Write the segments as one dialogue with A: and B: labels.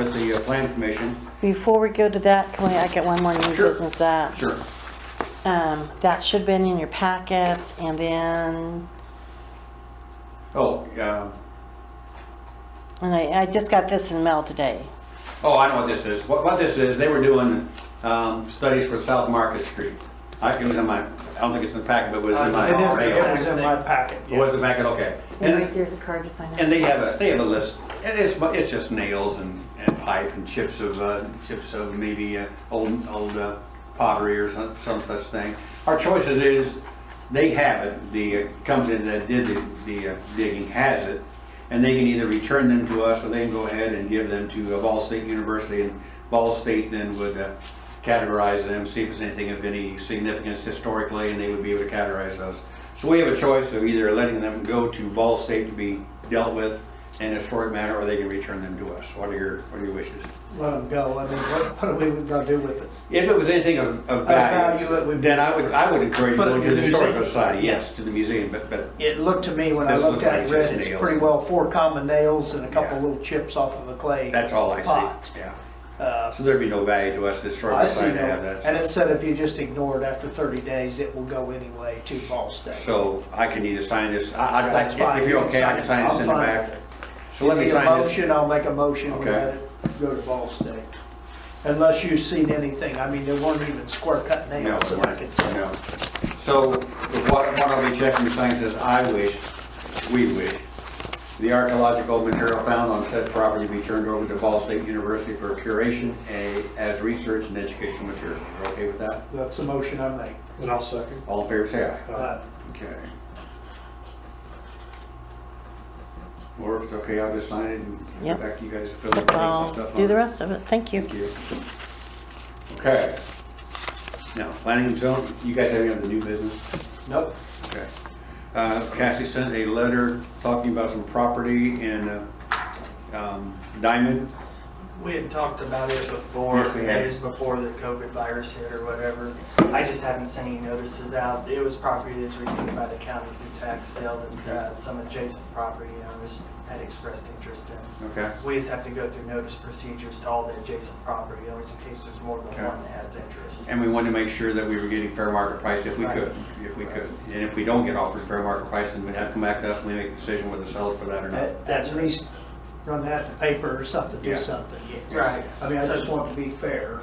A: Area Plan uh, Commission.
B: Before we go to that, can we, I get one more new
A: Sure.
B: business that?
A: Sure.
B: Um, that should have been in your packet, and then,
A: Oh, yeah.
B: and I, I just got this in mail today.
A: Oh, I know what this is. What, what this is, they were doing, um, studies for South Market Street. I can, it was in my, I don't think it's in the packet, but it was in my.
C: Uh, It is, it was
A: radar.
C: in my packet,
A: It was
C: yeah.
A: in the packet, okay.
B: And
A: And-
B: right there's a card to sign up.
A: And they have a, they have a list, and it's, mu- it's just nails and, and pipe and chips of, uh, chips of maybe, uh, old, old uh, pottery or some, some such thing. Our choices is, they have it, the uh, company that did the, the uh, digging has it, and they can either return them to us, or they can go ahead and give them to uh, Ball State University, and Ball State then would uh, categorize them, see if it's anything of any significance historically, and they would be able to categorize those. So we have a choice of either letting them go to Ball State to be dealt with in a historic manner, or they can return them to us. What are your, what are your wishes?
C: Let them go, I mean, what, what are we gonna do with it?
A: If it was anything of, of
C: value,
A: value,
C: it would be-
A: then I would, I would encourage
C: Put it
A: going
C: in
A: to
C: the
A: the historical
C: museum.
A: society, yes, to the museum, but, but
C: It looked to me, when I
A: This
C: looked at it,
A: looked like
C: read,
A: just
C: it's
A: nails.
C: pretty well four common nails and a couple
A: Yeah.
C: little chips off of a clay.
A: that's all I
C: pot.
A: see, yeah.
C: Uh,
A: So there'd be no value to us, the historical
C: I see,
A: society to have
C: no- and
A: that.
C: it said if you just ignore it after thirty days, it will go anyway to Ball State.
A: So I can either sign this, I, I,
C: That's fine.
A: if you're okay, I can sign this in the
C: I'm fine.
A: back. So let me
C: Need a
A: sign this.
C: Motion, I'll make a motion, we
A: Okay.
C: let it go to Ball State. Unless you've seen anything, I mean, there weren't even square cut
A: No,
C: nails
A: it
C: that I could
A: wasn't,
C: tell.
A: no. So what, what I'll be checking is things is I wish, we wish, the archaeological material found on said property be turned over to Ball State University for curation a- as research and educational material. You're okay with that?
C: That's the motion I make.
D: And I'll second.
A: All in favor, say aye.
C: Uh,
A: Okay. Or if it's okay, I'll just sign it and get
B: Yep.
A: back to you guys to fill in the blanks and
B: I'll
A: stuff.
B: do
A: on
B: the
A: it.
B: rest of it, thank you.
A: Thank you. Okay. Now, planning and zone, you guys have any other new business?
C: Nope.
A: Okay. Uh, Cassie sent a letter talking about some property in uh, um, Diamond.
E: We had talked about it before,
A: Yes, we had.
E: days before the COVID virus hit or whatever. I just haven't sent any notices out. It was property that's redeemed by the county through tax sale and uh, some adjacent property owners had expressed interest in.
A: Okay.
E: We just have to go through notice procedures to all the adjacent property owners in case there's more
A: Okay.
E: than one that has interest.
A: And we wanted to make sure that we were getting fair market price if we could, if we could. And if we don't get offered fair market price, then we'd have to come back to us and we make a decision whether to sell it for that or not.
C: At at least run that in the paper or something, do
A: Yeah.
C: something. yes.
E: Right.
C: I mean, I just want to be fair.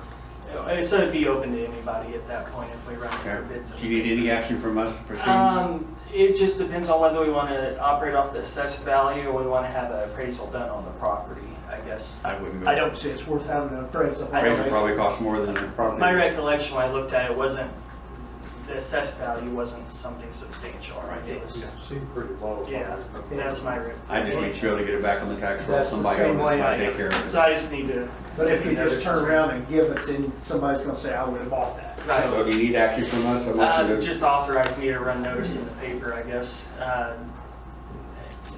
E: Uh, So it'd be open to anybody at that point if we run it for
A: Okay.
E: bids.
A: Do you need any action from us to proceed?
E: Um, it just depends on whether we want to operate off the assessed value or we want to have an appraisal done on the property, I guess.
A: I wouldn't go.
C: I don't see it's worth having an appraisal.
E: I don't-
A: Appraisal probably costs more than the property.
E: My recollection when I looked at it wasn't, the assessed value wasn't something substantial, right? It was,
D: Seemed pretty low.
E: yeah, that's my re.
A: I just need to be able to get it back on the tax roll.
C: That's the
A: Somebody
C: same
A: else
C: way
A: might
C: I-
A: take care of it.
E: So I just need to.
C: But if you just turn
E: turn
C: around and give it, then somebody's gonna say, I would have bought that.
E: Right.
A: So do you need action from us? I want you
E: Uh,
A: to-
E: just authorize me to run notice in the paper, I guess, uh,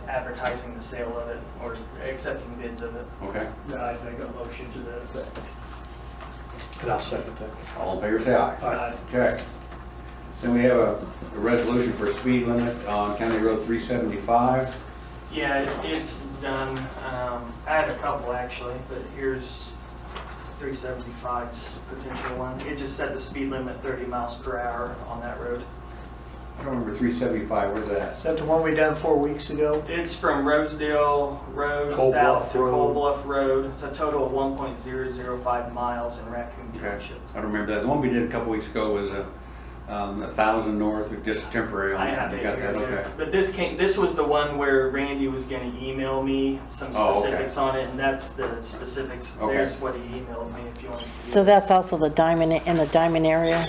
E: advertising the sale of it or accepting bids of it.
A: Okay.
C: Then I'd make a motion to that effect.
D: And I'll second that.
A: All in favor, say aye.
C: I'd
A: Okay. Then we have a a resolution for speed limit on County Road 375.
E: Yeah, it- it's done. Um, I had a couple actually, but here's 375's potential one. It just set the speed limit 30 miles per hour on that road.
A: I don't remember 375, where's that?
C: Is that the one we done four weeks ago?
E: It's from Rosedale Road
D: Cold
E: south
D: Bluff
E: to
D: Road.
E: Cold Bluff Road. It's a total of 1.005 miles in Raccoon
A: Okay.
E: Township.
A: I don't remember that. The one we did a couple weeks ago was a um, a 1,000 north, just temporary. on
E: I
A: that.
E: have
A: You
E: it
A: got
E: here
A: that?
E: too.
A: Okay.
E: But this came, this was the one where Randy was gonna email me some
A: Oh, okay.
E: specifics on it, and that's the specifics.
A: Okay.
E: There's what he emailed me if you want to. see
B: So
E: it.
B: that's also the diamond, in the diamond area?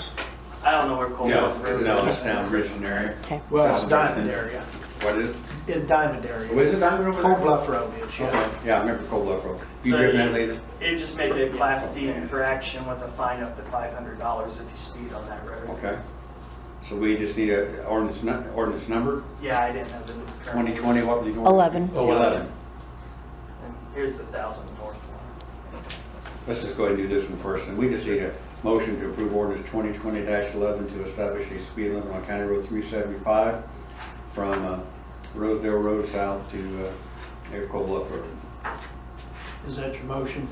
E: I don't know where Cold Bluff
A: No,
E: Road is.
A: no, it's down Richland area.
B: Okay.
C: Well, it's
A: Sounds
C: Diamond
A: good.
C: area,
A: What is it?
C: in Diamond
A: Oh,
C: area.
A: is it Diamond over there?
C: Cold Bluff Road is,
A: Okay.
C: yeah.
A: Yeah, I remember Cold Bluff Road. You
E: So
A: driven
E: you-
A: that later?
E: It just made it a class C infraction with a fine up to five hundred dollars if you speed on that road.
A: Okay. So we just need a ordinance nu- ordinance number,
E: Yeah, I didn't have the. current-
A: 2020, what were you going?
B: Eleven.
A: Oh, 11.
E: And Here's the thousand north one.
A: Let's just go ahead and do this one first, and we just need a motion to approve ordinance twenty twenty eleven to establish a speed limit on County Road three seventy-five from uh, Rosedale Road south to uh, Eric Cole Bluff Road.
C: Is that your motion?